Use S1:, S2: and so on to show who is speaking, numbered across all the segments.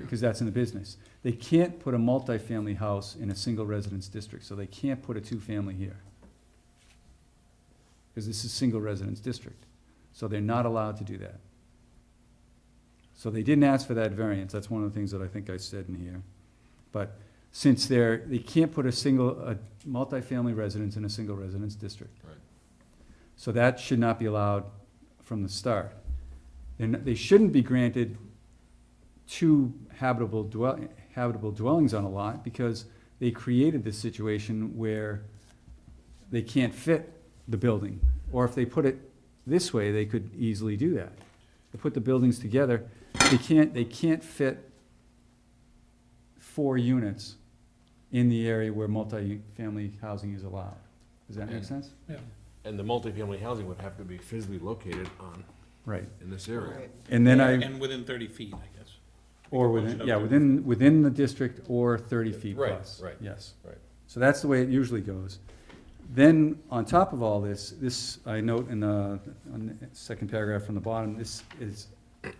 S1: because that's in the business. They can't put a multifamily house in a single residence district, so they can't put a two-family here. Because this is single residence district, so they're not allowed to do that. So they didn't ask for that variance, that's one of the things that I think I said in here. But since they're, they can't put a single, a multifamily residence in a single residence district.
S2: Right.
S1: So that should not be allowed from the start. They're not- they shouldn't be granted two habitable dwell, habitable dwellings on a lot, because they created this situation where they can't fit the building, or if they put it this way, they could easily do that. They put the buildings together, they can't, they can't fit four units in the area where multifamily housing is allowed. Does that make
S2: And-
S1: sense?
S2: And the multifamily housing would have to be physically located on,
S1: Right,
S2: in this area.
S3: Right.
S1: and then I.
S4: And within thirty feet, I guess.
S1: Or within, yeah, within, within the district or thirty feet
S2: Right,
S1: plus.
S2: right,
S1: Yes.
S2: right.
S1: So that's the way it usually goes. Then, on top of all this, this, I note in the, on the second paragraph from the bottom, this is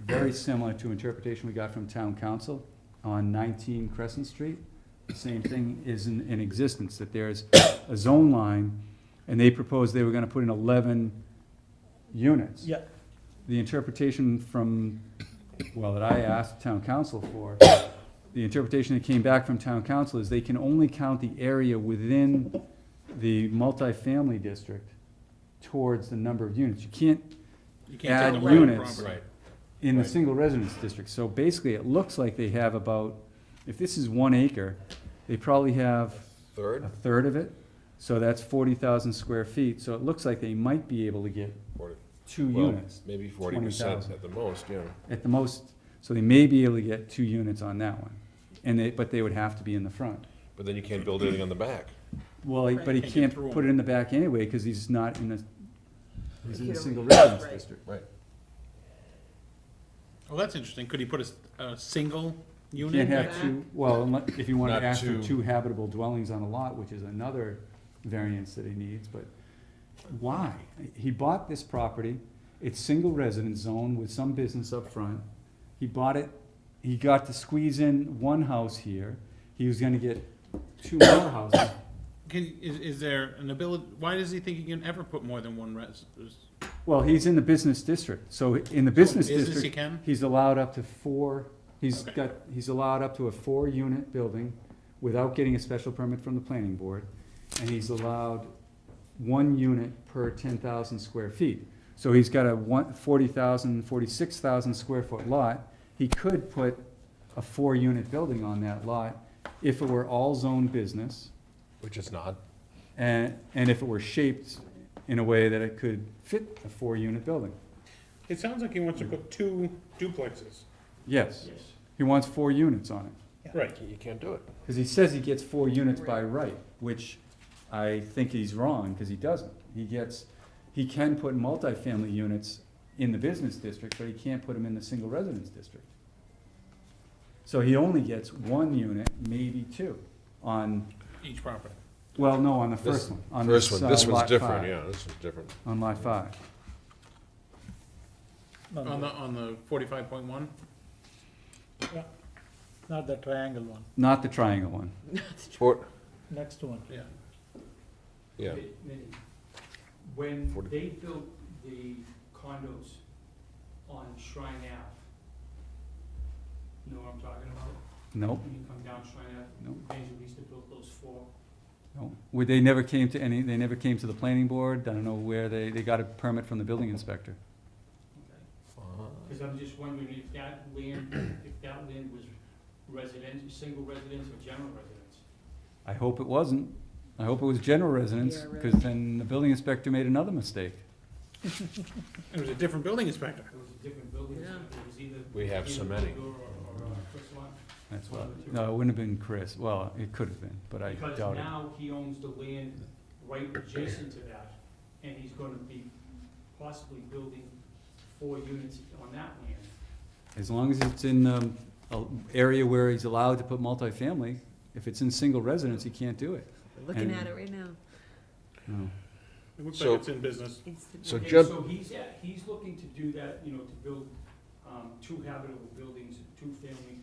S1: very similar to interpretation we got from town council on nineteen Crescent Street. The Same thing is in, in existence, that there's a zone line, and they proposed they were gonna put in eleven units
S5: Yeah,
S1: the interpretation from, well, that I asked town council for, the interpretation that came back from town council is they can only count the area within the multifamily district towards the number of units. You can't
S4: You
S1: Add
S4: can't take the private
S1: units.
S4: property.
S2: Right,
S1: in the
S2: Right.
S1: single residence district. So basically, it looks like they have about, if this is one acre, they probably have a
S2: third,
S1: third of it. So that's forty thousand square feet. So it looks like they might be able to get
S2: forty,
S1: two
S2: well,
S1: units.
S2: maybe forty percent
S1: 20,000.
S2: at the most, yeah.
S1: at the most, so they may be able to get two units on that one. And they, but they would have to be in the front.
S2: But then you can't build anything on the back.
S1: Well, he- but he
S4: Right, can't get
S1: can't
S4: through
S1: put it in the back anyway, cause he's not in the, he's in
S3: You
S1: the
S3: don't-
S1: single residence
S3: right.
S1: district.
S2: Right.
S4: Well, Oh, that's interesting. Could he put a s- a, single
S1: You
S4: unit?
S1: Can't
S4: back?
S1: have two, well, unle- if you wanna
S2: Not
S1: ask for
S2: two.
S1: two habitable dwellings on a lot, which is another variance that he needs, but why? He bought this property, it's single residence zone with some business up front. He bought it, he got to squeeze in one house here, he was gonna get two more houses,
S4: Can, is, is there an ability, why does he think he can ever put more than one res? res-
S1: Well, he's in the business district, so in the business
S4: business he
S1: district,
S4: can?
S1: he's allowed up to four, he's
S4: Okay.
S1: got, he's allowed up to a four-unit building without getting a special permit from the planning board, and he's allowed one unit per ten thousand square feet. So he's got a one, forty thousand, forty-six thousand square foot lot, he could put a four-unit building on that lot if it were all zoned business,
S2: Which is not.
S1: and, and if it were shaped in a way that it could fit a four-unit building.
S6: It sounds like he wants to put two duplexes.
S1: Yes. He wants four units on it,
S6: Right.
S2: You can't do it.
S1: because he says he gets four units by right, which I think he's wrong, because he doesn't. He gets, he can put multifamily units in the business district, but he can't put them in the single residence district. So he only gets one unit, maybe two, on,
S4: Each property.
S1: well, no, on the
S2: This-
S1: first one, on
S2: First
S1: this,
S2: one,
S1: uh,
S2: this one's
S1: lot
S2: different,
S1: five,
S2: yeah, this is different.
S1: on lot five.
S5: no,
S4: On the,
S5: no,
S4: on the forty-five point one?
S5: not the triangle one,
S1: Not the triangle one.
S2: Or,
S5: next one.
S4: Yeah.
S2: yeah,
S7: When
S2: Forty-
S7: they built the condos on Shrine Ave, you know what I'm talking about?
S1: Nope,
S7: When you come down Shrine Ave,
S1: nope,
S7: Angela used to build those four.
S1: nope. Well, They never came to any, they never came to the planning board. I don't know where they, they got a permit from the building inspector.
S7: Because I'm just wondering if that land, if that land was residential, single residence or general residence?
S1: I hope it wasn't. I hope it was general residence,
S3: Yeah,
S1: because then the building inspector made another mistake.
S4: It was a different building inspector.
S7: It was a different building, so
S3: Yeah.
S7: it was either.
S2: We have so
S7: either
S2: many.
S7: Tudor Or, or, uh, Chris Lot.
S1: That's why, no, it wouldn't have been Chris. Well, it could have been, but I
S7: Because
S1: doubt it.
S7: now he owns the land right adjacent to that, and he's gonna be possibly building four units on that land.
S1: As long as it's in, um, a area where he's allowed to put multifamily, if it's in single residence, he can't do it.
S3: We're Looking at it right now.
S1: No.
S4: It looks
S2: So-
S4: like it's in business.
S3: It's the-
S2: So
S7: And
S2: Jeb-
S7: So he's at, he's looking to do that, you know, to build, um, two habitable buildings, two family